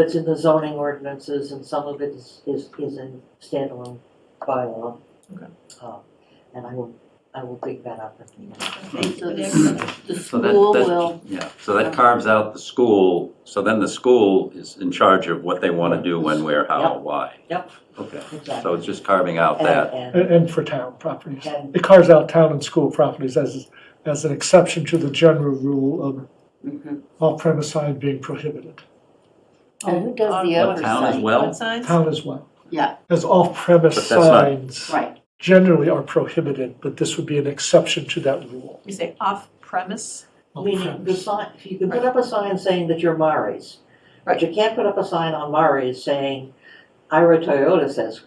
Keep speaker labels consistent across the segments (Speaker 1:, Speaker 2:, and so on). Speaker 1: It's in the zoning ordinances and some of it is, is, is in standalone bylaw.
Speaker 2: Okay.
Speaker 1: Uh, And I will, I will dig that up and.
Speaker 3: Okay, so there's, the
Speaker 4: So
Speaker 3: school
Speaker 4: that,
Speaker 3: will,
Speaker 4: that, yeah, so that carves out the school, so then the school is in charge of what they wanna do, when, where, how, why.
Speaker 1: Yep.
Speaker 4: Okay, so
Speaker 1: Exactly.
Speaker 4: it's just carving out
Speaker 1: And-
Speaker 4: that,
Speaker 1: And,
Speaker 5: and, and for town properties.
Speaker 1: and,
Speaker 5: It carves out town and school properties as, as an exception to the general rule of
Speaker 3: Mhm.
Speaker 5: off-premise sign being prohibited.
Speaker 3: oh, who does the
Speaker 1: um,
Speaker 2: Yeah,
Speaker 4: what
Speaker 2: we're
Speaker 4: town as
Speaker 3: oversight?
Speaker 2: What
Speaker 4: well?
Speaker 2: signs?
Speaker 5: Town as well.
Speaker 3: Yeah.
Speaker 5: As off-premise
Speaker 4: But that's not-
Speaker 5: signs
Speaker 3: Right,
Speaker 5: generally are prohibited, but this would be an exception to that rule.
Speaker 2: You say off-premise?
Speaker 1: meaning the
Speaker 5: Off-premise.
Speaker 1: sign, if you can put up a sign saying that you're Murray's, but you can't put up a sign on Murray's saying Ira Toyota says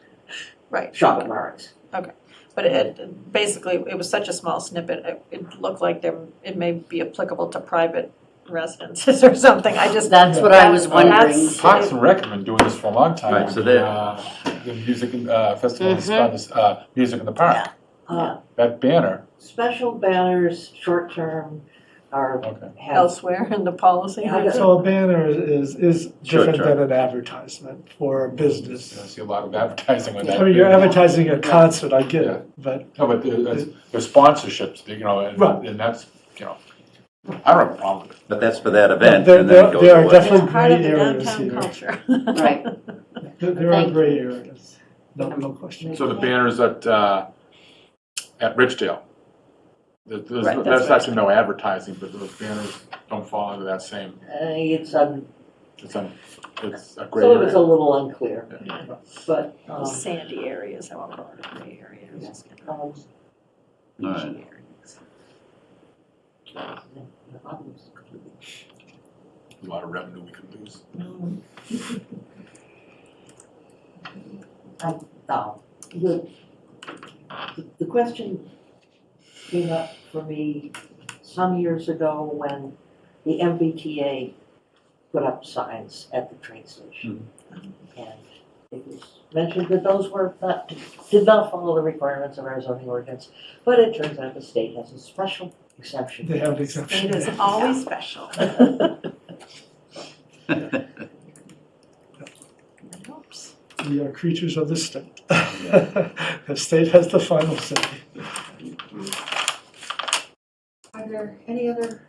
Speaker 2: Right.
Speaker 1: shop at Murray's.
Speaker 2: But it, basically, it was such a small snippet, it, it looked like there, it may be applicable to private residences or something, I just.
Speaker 3: that's what I was wondering.
Speaker 2: That's-
Speaker 6: Parks and Rec have been doing this for a long time.
Speaker 4: Right, so they're-
Speaker 6: Uh, The music, in- uh, festival,
Speaker 1: Mm-hmm.
Speaker 6: is done this, uh, Music in the Park,
Speaker 1: Uh,
Speaker 6: that banner,
Speaker 1: Special banners, short-term, are,
Speaker 6: okay.
Speaker 1: have,
Speaker 2: Elsewhere in the policy.
Speaker 1: Yeah, I guess-
Speaker 5: So a banner is, is
Speaker 4: Sure,
Speaker 5: different
Speaker 4: sure.
Speaker 5: than an advertisement for a
Speaker 6: I
Speaker 5: business.
Speaker 6: see a lot of advertising on that.
Speaker 5: I mean, you're advertising a concert, I get
Speaker 6: Yeah.
Speaker 5: it, but
Speaker 6: No, but there- there's there's sponsorships, you know, and,
Speaker 5: Right.
Speaker 6: and that's, you know, I don't have a problem with it.
Speaker 4: but that's for that event,
Speaker 5: there,
Speaker 4: and then it
Speaker 5: there
Speaker 4: goes
Speaker 5: there are
Speaker 4: away.
Speaker 5: definitely
Speaker 2: It's part of
Speaker 5: gray
Speaker 2: the
Speaker 5: areas
Speaker 2: downtown
Speaker 5: here.
Speaker 2: culture.
Speaker 3: Right,
Speaker 5: There- There are
Speaker 3: Thank you.
Speaker 5: gray areas, no, no question.
Speaker 6: So the banners at, uh, at Ridgedale, there-
Speaker 2: Right,
Speaker 6: there's,
Speaker 2: that's
Speaker 6: that's actually no advertising, but those banners don't fall into that same,
Speaker 1: uh, it's, um,
Speaker 6: it's a, it's a great
Speaker 1: some of it's a
Speaker 6: area.
Speaker 1: little unclear, but, um,
Speaker 2: Sandy areas, I want to call it gray areas.
Speaker 1: um,
Speaker 4: All right.
Speaker 6: A lot of revenue we could lose.
Speaker 1: Now, the, the question came up for me some years ago when the MBTA put up signs at the train station.
Speaker 5: Hmm.
Speaker 1: And it was mentioned that those were not, did not follow the requirements of our zoning ordinance, but it turns out the state has a special exception.
Speaker 5: They have an
Speaker 2: It is
Speaker 5: exception.
Speaker 2: always special. Oops.
Speaker 5: We are creatures of the state. The state has the final say.
Speaker 1: Are there any other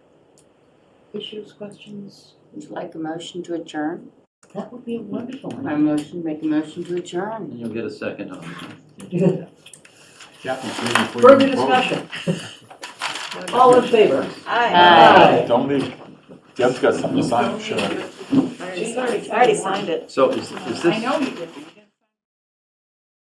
Speaker 1: issues, questions?
Speaker 3: would you like a motion to adjourn?
Speaker 1: That would be wonderful.
Speaker 3: My motion, make a motion to adjourn.
Speaker 4: And You'll get a second on it.
Speaker 6: Captain, please, before you
Speaker 1: Further
Speaker 6: vote.
Speaker 1: discussion? All in favor?
Speaker 3: Aye.
Speaker 6: Don't leave. Deb's got something to sign, I'm sure.
Speaker 2: I already signed it.
Speaker 4: So is, is this?
Speaker 2: I know you didn't.